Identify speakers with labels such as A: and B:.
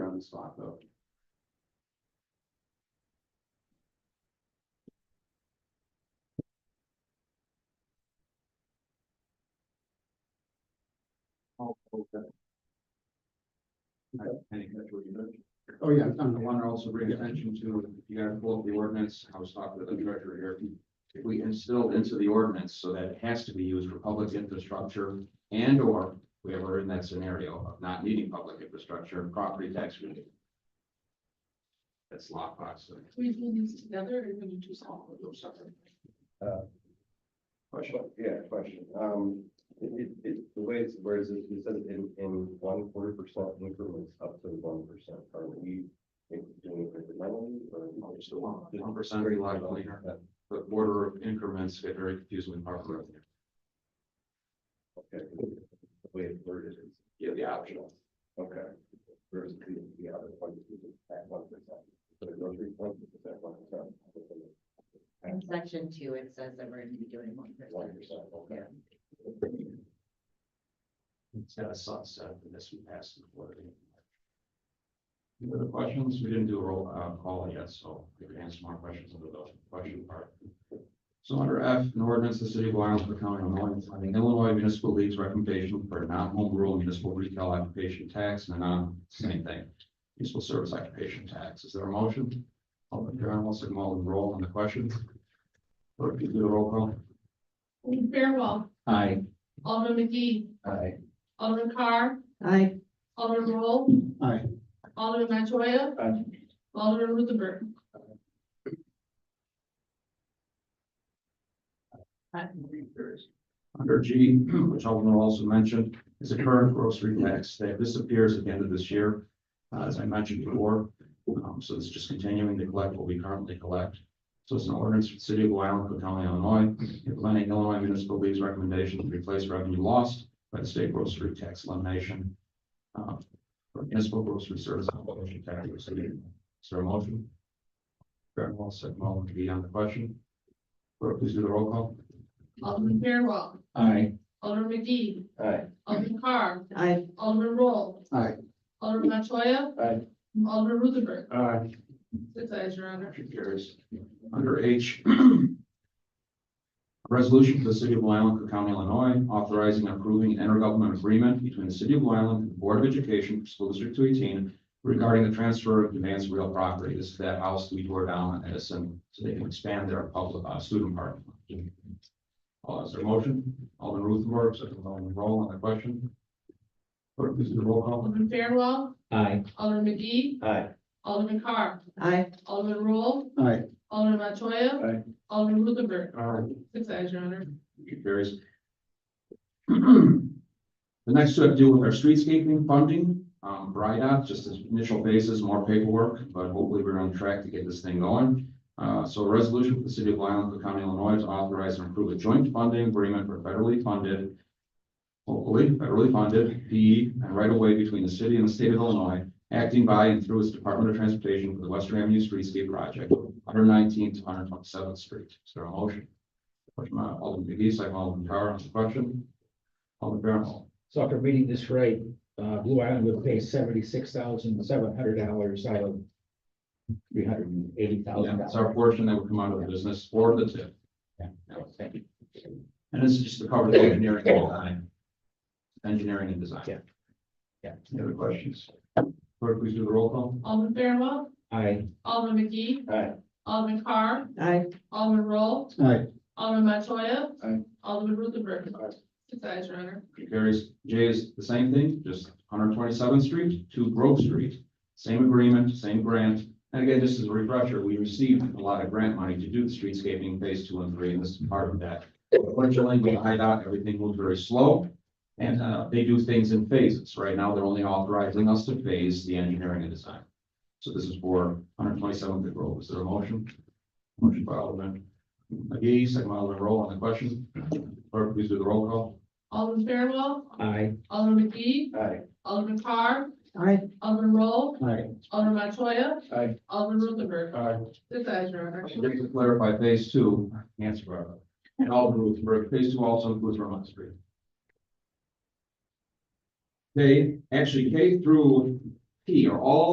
A: on the spot though.
B: Oh, okay.
A: I think that's what you meant. Oh, yeah, I'm want to also bring attention to, if you gotta pull up the ordinance, I was talking to the director here. If we instilled into the ordinance so that it has to be used for public infrastructure and or we ever in that scenario of not needing public infrastructure and property tax relief. That's lockbox. so
C: We do these together or we do all of those separate?
B: Question.
D: Yeah, question. Um, it, it, it, the way it's, whereas it it says in, in one quarter percent increments up to one percent, are we doing it incrementally or?
A: Just the one, the one percent reliable leader, but order of increments get very confusing with market revenue.
D: Okay. The way it's worded is
A: Yeah, the
D: optional. Okay. Whereas the, the other one is at one percent. So it goes three points, it's at one percent.
E: In section two, it says that we're gonna be doing one
D: One
E: percent.
D: percent, okay.
A: It's got a sunset and this we passed the board. Any other questions? We didn't do a roll uh, call yet, so we can answer more questions under the question part. So under F, an ordinance, the city of Blue Island, the county of Illinois, funding Illinois Municipal League's recommendation for a non-home rule municipal retail occupation tax and a non, same thing. Municipal service occupation tax. Is there a motion? Alderman Karen Wilson, Alderman Roll on the question. Clerk, please do the roll call.
C: Alderman Fairwell,
A: Aye.
C: Alderman McGee,
A: Aye.
C: Alderman Carr,
E: Aye.
C: Alderman Roll.
A: Aye.
C: Alderman Manchoya.
A: Aye.
C: Alderman Ruthenberg.
A: Under G, which Alderman also mentioned, is a current grocery tax that disappears at the end of this year, uh, as I mentioned before. Um, so it's just continuing to collect what we currently collect. So it's an ordinance for the city of Blue Island, Cook County, Illinois, implementing Illinois Municipal League's recommendation to replace revenue lost by the state grocery tax elimination. uh, For municipal grocery service obligation tax. for the city. Is there a motion? Karen Wall, second Alderman McGee on the question. Clerk, please do the roll call.
C: Alderman Fairwell,
A: Aye.
C: Alderman McGee,
D: All right.
C: Alderman Carr,
E: Aye.
C: Alderman Roll.
A: Aye.
C: Alderman Manchoya.
D: Aye.
C: Alderman Ruthenberg.
A: Aye.
C: Six eyes, your honor.
A: Motion carries. Under H. Resolution for the city of Blue Island, Cook County, Illinois, authorizing and approving an intergovernmental agreement between the city of Blue Island and the Board of Education for School District two eighteen regarding the transfer of advanced real property. This is that house we tore down in Edison, so they can expand their public, uh, student parking. Uh, is there a motion? Alderman Ruthenberg, second by Alderman Roll on the question. Clerk, please do the roll call.
C: Alderman Fairwell. Aye. Alderman McGee,
D: All right.
C: Alderman Carr,
E: Aye.
C: Alderman Roll.
A: Aye.
C: Alderman Manchoya.
D: Aye.
C: Alderman Ruthenberg.
A: Aye.
C: Six eyes, your honor.
A: Motion carries. The next two have to do with our streetscaping funding, um, BRIDOT, just as initial basis, more paperwork, but hopefully we're on track to get this thing going. Uh, so a resolution for the city of Blue Island, Cook County, Illinois, to authorize and approve a joint funding agreement for federally funded, hopefully federally funded, PE and right of way between the city and the state of Illinois, acting by and through its Department of Transportation for the Western Avenue Streetscape Project, one hundred nineteenth to one hundred twenty-seventh street. Is there a motion? Motion by Alderman McGee, second by Alderman Carr on the question. Alderman Fairwell.
B: So after reading this right, uh, Blue Island would pay seventy-six thousand seven hundred dollars out of three hundred and eighty thousand
A: That's our
B: dollars.
A: portion that would come out of the business for the tip.
B: Thank you.
A: And this is just to cover the engineering and design. Engineering and design.
B: Yeah. Yeah.
A: Any other questions? Clerk, please do the roll call.
C: Alderman Fairwell.
B: I,
C: Alderman McGee.
D: Aye.
C: Alderman Carr.
E: Aye.
C: Alderman Roll.
A: Aye.
C: Alderman Montoya.
D: Aye.
C: Alderman Ruthenberg.
D: Aye.
C: Six eyes, your honor.
A: Motion Carries, J is the same thing, just one hundred twenty-seventh street to Grove Street. Same agreement, same grant. And again, just as a refresher, we received a lot of grant money to do the streetscaping phase two and three, and this is part of that. Unfortunately, with IDOT, everything moves very slow. And, uh, they do things in phases. Right now, they're only authorizing us to phase the engineering and design. So this is for one hundred twenty-seventh Grove. Is there a motion? Motion by Alderman McGee, second by Alderman Roll on the question. Clerk, please do the roll call.
C: Alderman Fairwell.
B: I,
C: Alderman McGee.
D: All right.
C: Alderman Carr.
E: Aye.
C: Alderman Roll.
B: Aye.
C: Alderman Montoya.
D: Aye.
C: Alderman Ruthenberg. Six eyes, your honor.
A: Just to clarify, phase two, answer, Barbara, and all groups, but phase two also includes Vermont Street. They, actually, K through P are all